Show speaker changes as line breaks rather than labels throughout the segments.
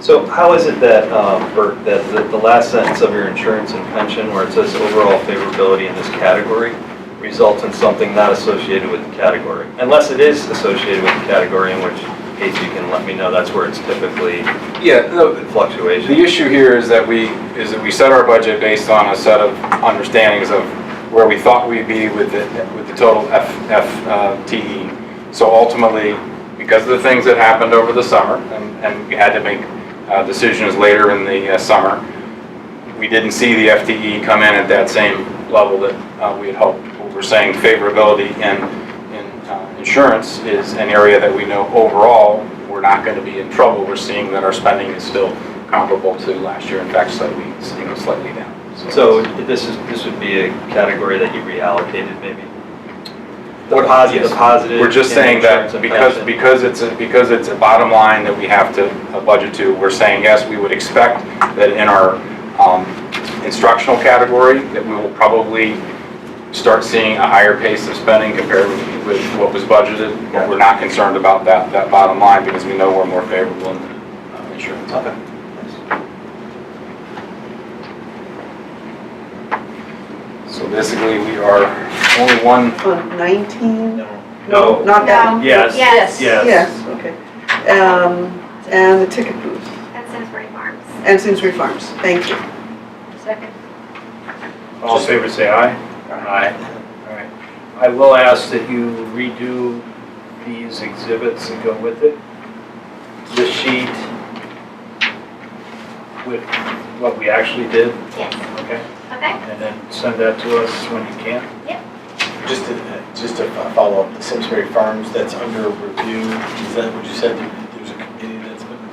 So how is it that, um, Bert, that the- the last sentence of your insurance and pension, where it says overall favorability in this category, results in something not associated with the category? Unless it is associated with the category, in which case you can let me know, that's where it's typically
Yeah, no,
in fluctuation.
the issue here is that we, is that we set our budget based on a set of understandings of where we thought we'd be with the, with the total F, FTE. So ultimately, because of the things that happened over the summer, and, and we had to make uh, decisions later in the uh, summer, we didn't see the FTE come in at that same level that uh, we had hoped. What We're saying favorability in, in uh, insurance is an area that we know overall, we're not going to be in trouble. We're seeing that our spending is still comparable to last year, in fact, slightly, you know, slightly down.
So this is, this would be a category that you reallocated maybe? The positive,
yes.
the positive.
We're just
in
saying
insurance
that
and
because,
pension.
because it's, a- because it's a bottom line that we have to uh, budget to, we're saying, yes, we would expect that in our um, instructional category, that we will probably start seeing a higher pace of spending compared with- with what was budgeted. But we're not concerned about that, that bottom line because we know we're more favorable in uh, insurance.
Okay.
So basically, we are only one,
On 19?
No.
Not that?
No.
Yes.
Yes.
Yes.
Yes, okay. Um, And the ticket booth,
At Simsbury Farms.
and Simsbury Farms, thank you.
Second.
All in favor, say aye. Aye. All right. I will ask that you redo these exhibits that go with it. The sheet with what we actually did,
Yes.
okay?
Okay.
And then send that to us when you can.
Just to, just to follow up, the Simsbury Farms, that's under review, is that what you said? There's a committee that's been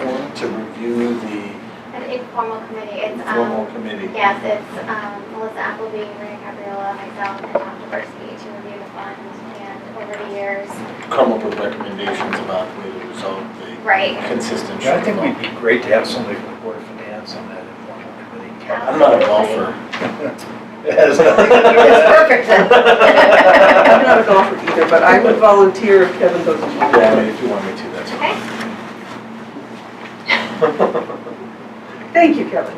formed to review the
An informal committee. It's,
formal
um,
committee?
yes, it's, um, Melissa Appleby, Maria Gabriella, myself, and Tom Dabrowski to review the fund. And over the years,
Come up with recommendations about the way to resolve the
right.
consistent
I think
shortfall.
we'd be great to have somebody from the Board of Finance on that informal committee.
Yeah.
I'm not a golfer.
It has nothing to do with that.
That's perfect I'm not a golfer either, but I would volunteer if Kevin goes along.
Yeah, I mean, if you want me to, that's fine.
Okay.
Thank you, Kevin.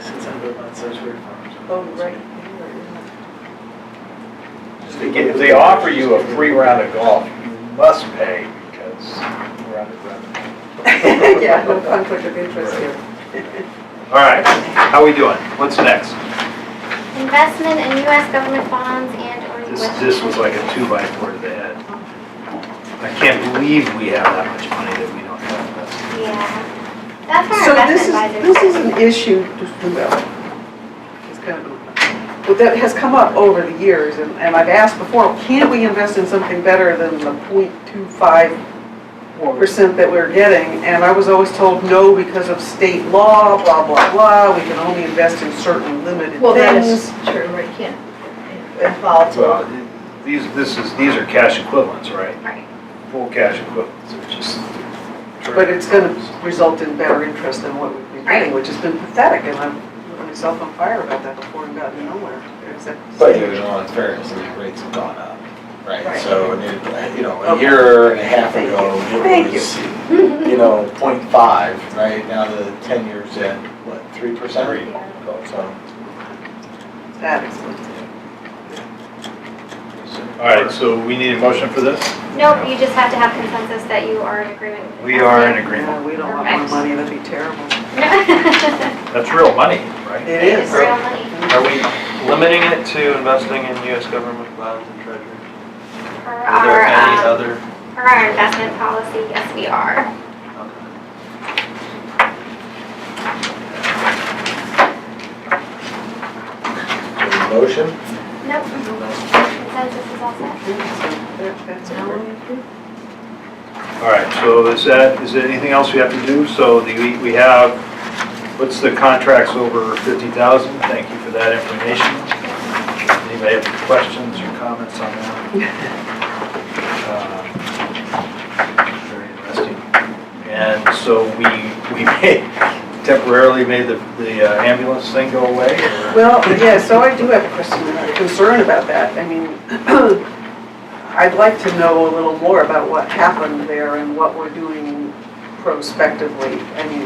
Since I live on Simsbury Farms.
Oh, right.
If they get- If they offer you a free round of golf, you must pay because we're out of revenue.
Yeah, no conflict of interest here.
All right, how we doing? What's next?
Investment in U.S. government bonds and or
This,
U.S.
this was like a two by four to the head. I can't believe we have that much money that we don't have invested.
Yeah. That's where
So
our
this is,
investment
this is
advisors.
an issue, just, well, it's kind of, well, that has come up over the years, and, and I've asked before, can't we invest in something better than the 0.25 percent that we we're getting? And I was always told, no, because of state law, blah, blah, blah, we can only invest in certain limited
Well, that is
things.
true, right, you can't, it's volatile.
Well, these, this is, these are cash equivalents, right?
Right.
Full cash equivalents, which is.
But it's gonna result in better interest than what we've been getting,
Right.
which has been pathetic, and I've lit myself on fire about that before and gotten nowhere, except.
But in all fairness, I mean, rates have gone up, right?
Right.
So, I mean, you know, a
Okay.
year and a half
Thank
ago,
you. Thank
it
you.
was, you know, point five, right? Now the ten years at, what, three percent? So,
That explains it.
All right, so we need a motion for this?
Nope, you just have to have consensus that you are in agreement with.
We are in agreement.
Yeah, we don't want more
Correct.
money, that'd be terrible.
agreement.
That's real money, right?
It
It's
is.
real money.
Are we limiting it to investing in US government bonds and treasury?
For
Are there any
our, um,
other?
for our investment policy, yes, we are.
a motion?
Nope. Consensus is all set.
All right, so is that, is there anything else we have to do? So the, we- we have, what's the contracts over 50,000? Thank you for that information. Anybody have questions or comments on that? Uh, Very interesting. And so we, we made- temporarily made the, the uh, ambulance thing go away? or-
Well, yeah, so I do have a question, a concern about that. I mean, I'd like to know a little more about what happened there and what we're doing prospectively. I mean,